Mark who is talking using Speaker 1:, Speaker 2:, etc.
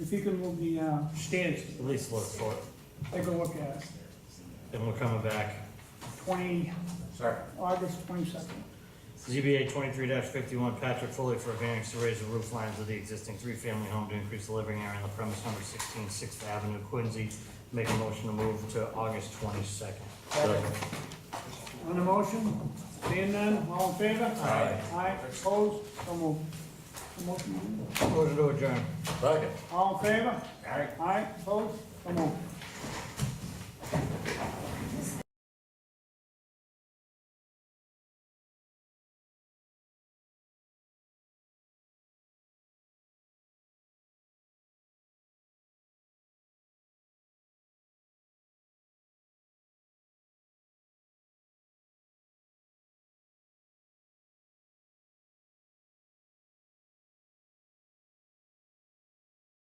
Speaker 1: if you can move the, uh,
Speaker 2: stands at least look for it,
Speaker 1: take a look at it.
Speaker 2: and we're coming back.
Speaker 1: twenty,
Speaker 3: Sorry.
Speaker 1: August twenty-second.
Speaker 2: ZBA twenty-three fifty-one, Patrick Foley for a variance to raise the roof lines of the existing three-family home to increase the living area on the premise number 16 Sixth Avenue, Quincy. Make a motion to move to August twenty-second.
Speaker 1: On the motion, seeing none, all in favor?
Speaker 3: Aye.
Speaker 1: Aye, opposed, so moved. So motion,
Speaker 2: Motion to adjourn.
Speaker 3: Second.
Speaker 1: All in favor?
Speaker 3: Aye.
Speaker 1: Aye, opposed, so moved.